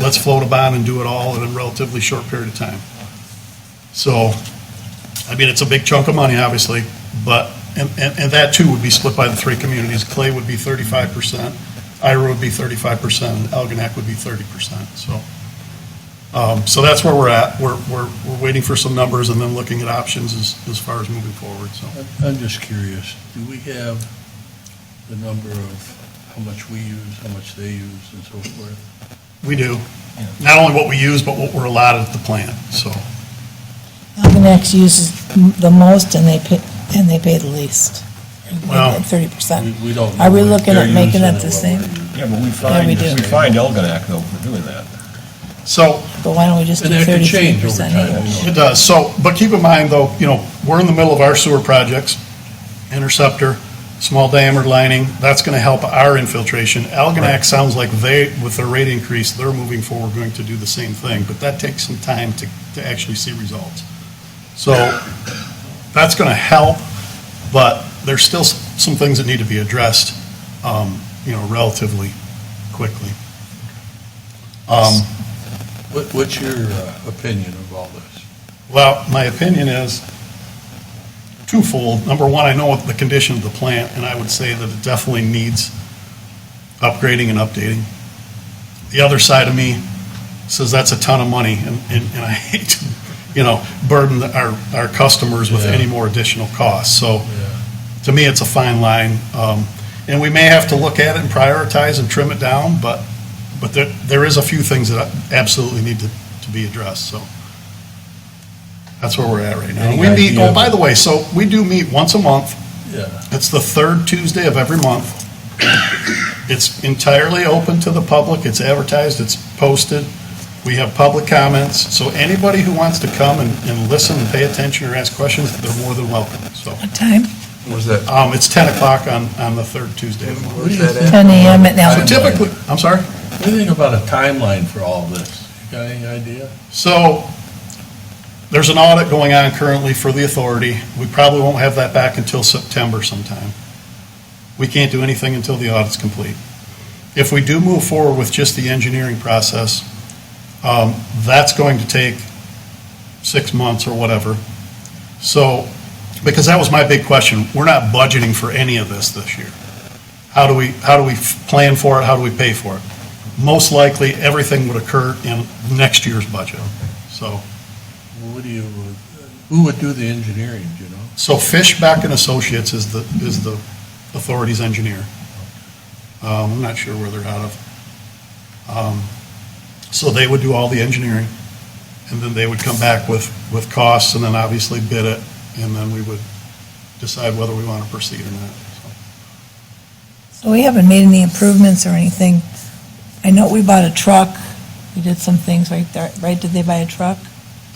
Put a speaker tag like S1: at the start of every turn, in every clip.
S1: let's float a bond and do it all in a relatively short period of time. So, I mean, it's a big chunk of money, obviously, but, and, and, and that too would be split by the three communities. Clay would be thirty-five percent, Ira would be thirty-five percent, and Algonac would be thirty percent, so. Um, so that's where we're at. We're, we're, we're waiting for some numbers and then looking at options as, as far as moving forward, so.
S2: I'm just curious, do we have the number of how much we use, how much they use, and so forth?
S1: We do. Not only what we use, but what we're allotted at the plant, so.
S3: Algonac uses m- the most and they pay, and they pay the least.
S1: Well,
S3: Thirty percent.
S2: We- We don't.
S3: Are we
S2: know if
S3: looking
S2: they're
S3: at making
S2: using
S3: it the
S2: what
S3: same?
S2: we're using.
S4: Yeah, but we
S3: Yeah,
S4: find,
S3: we
S4: we
S3: do.
S4: find Elginak though for doing that.
S1: So,
S3: But why don't we just do
S2: And that could
S3: thirty-three
S2: change over
S3: percent
S2: time.
S3: each?
S2: you know.
S1: It does, so, but keep in mind, though, you know, we're in the middle of our sewer projects, interceptor, small diameter lining, that's gonna help our infiltration. Algonac sounds like they, with their rate increase, they're moving forward, going to do the same thing, but that takes some time to, to actually see results. So, that's gonna help, but there's still s- some things that need to be addressed, um, you know, relatively quickly. Um,
S2: What, what's your uh, opinion of all this?
S1: Well, my opinion is twofold. Number one, I know what the condition of the plant, and I would say that it definitely needs upgrading and updating. The other side of me says that's a ton of money, and, and and I hate, to, you know, burden the- our, our customers with
S2: Yeah.
S1: any more additional costs. So to me, it's a fine line. Um, And we may have to look at it and prioritize and trim it down, but, but there, there is a few things that absolutely need to, to be addressed, so. That's where we're at right now.
S2: Any
S1: We meet,
S2: idea?
S1: oh, by the way, so we do meet once a month.
S2: Yeah,
S1: It's the third Tuesday of every month. It's entirely open to the public. It's advertised, it's posted. We have public comments, so anybody who wants to come and, and listen and pay attention or ask questions, they're more than welcome, so.
S3: What time?
S5: Was that,
S1: Um, it's 10 o'clock on, on the third Tuesday of the month.
S5: what is that at?
S3: Ten AM at
S1: So
S3: now.
S1: typically, I'm sorry?
S2: what do you think about a timeline for all this? You got any idea?
S1: So there's an audit going on currently for the authority. We probably won't have that back until September sometime. We can't do anything until the audit's complete. If we do move forward with just the engineering process, um, that's going to take six months or whatever. So, because that was my big question, we're not budgeting for any of this this year. How do we, how do we f- plan for it? How do we pay for it? Most likely, everything would occur in next year's budget. So,
S2: What do you, uh, who would do the engineering, do you know?
S1: so Fishback and Associates is the, is the authority's engineer. Um, I'm not sure where they're out of. Um, So they would do all the engineering, and then they would come back with, with costs, and then obviously bid it, and then we would decide whether we want to proceed or not. So,
S3: So we haven't made any improvements or anything. I know we bought a truck. We did some things right there, right? Did they buy a truck?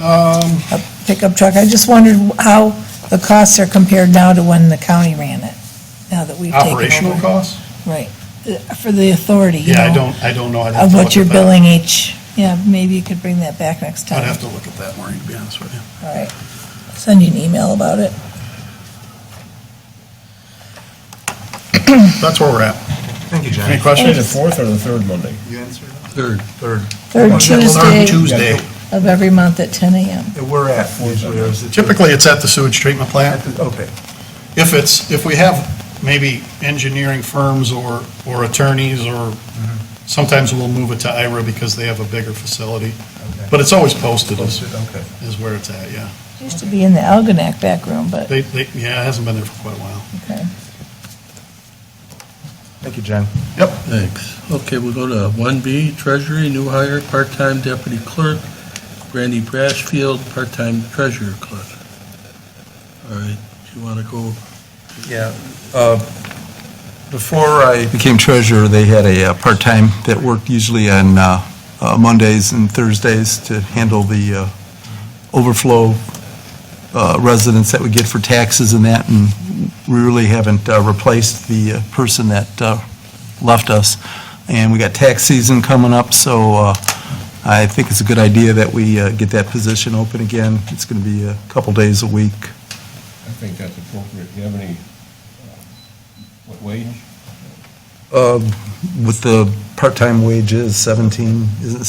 S1: Um,
S3: A pickup truck? I just wondered how the costs are compared now to when the county ran it, now that we've taken over.
S1: operational costs?
S3: Right. Uh, For the authority, you know.
S1: Yeah, I don't, I don't know. I'd have
S3: Of
S1: to look
S3: what
S1: at
S3: you're
S1: that.
S3: billing each. Yeah, maybe you could bring that back next time.
S1: I'd have to look at that, Maureen, to be honest with you.
S3: All right, send you an email about it.
S1: That's where we're at.
S5: Thank you,
S1: Any
S5: John.
S4: Actually, the
S1: questions?
S4: fourth or the third Monday?
S5: You answered that?
S2: Third,
S5: Third,
S3: Third
S1: Third
S3: Tuesday
S1: Tuesday.
S3: of every month at 10 AM.
S5: Yeah, we're at, is where I was at.
S1: Typically, it's at the sewage treatment
S5: At
S1: plant.
S5: the- Okay,
S1: If it's, if we have maybe engineering firms or, or attorneys, or
S5: Mm-hmm.
S1: sometimes we'll move it to Ira because they have a bigger facility.
S5: okay.
S1: But it's always posted is,
S5: Posted, okay.
S1: is where it's at, yeah.
S3: It Used to be in the Algonac back room, but,
S1: They, they, yeah, it hasn't been there for quite a while.
S3: okay.
S5: Thank you, John.
S2: thanks. Okay, we'll go to one B, Treasury, new hire, part-time deputy clerk, Brandy Brashfield, part-time treasurer clerk. All right, do you want to go
S5: Yeah. uh, Before I became treasurer, they had a uh, part-time that worked usually on uh, uh, Mondays and Thursdays to handle the uh, overflow uh, residents that we get for taxes and that, and we really haven't uh, replaced the uh, person that uh, left us. And we got tax season coming up, so uh, I think it's a good idea that we uh, get that position open again. It's going to be a couple days a week.
S4: I think that's appropriate. Do you have any, uh, what wage?
S5: Uh, With the part-time wage is 17, isn't it